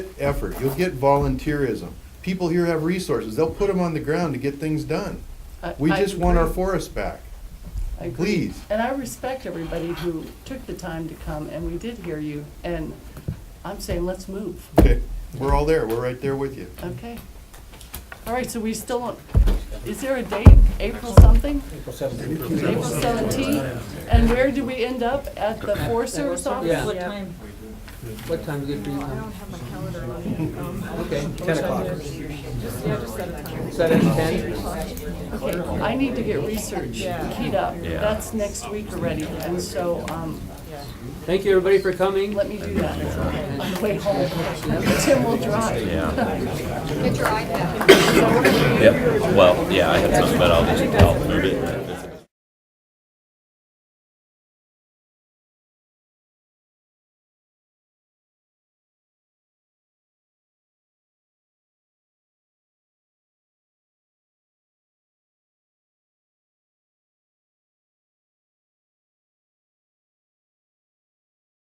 effort, you'll get volunteerism. People here have resources, they'll put them on the ground to get things done. I- We I just want our agree. forests back. I agree. please. And I respect everybody who took the time to come, and we did hear you, and I'm saying, let's move, Okay, we're all there, we're right there with you. okay? All right, so we still, don't- is there a date, April something? April seventeenth. April seventeenth? And where do we end up, at the Forest Service Yeah. office? What time? What time is good for you? I don't Tom? have my calendar on me. Um, Okay, ten o'clock. Yeah, just set a time. Is that at ten? Okay, I need to get research Yeah. keyed up, that's next week already, and so, um, Thank you, everybody, for coming. let me do that on the way home. Tim will drive. Yep, well, yeah, I have some, but I'll just, I'll move it.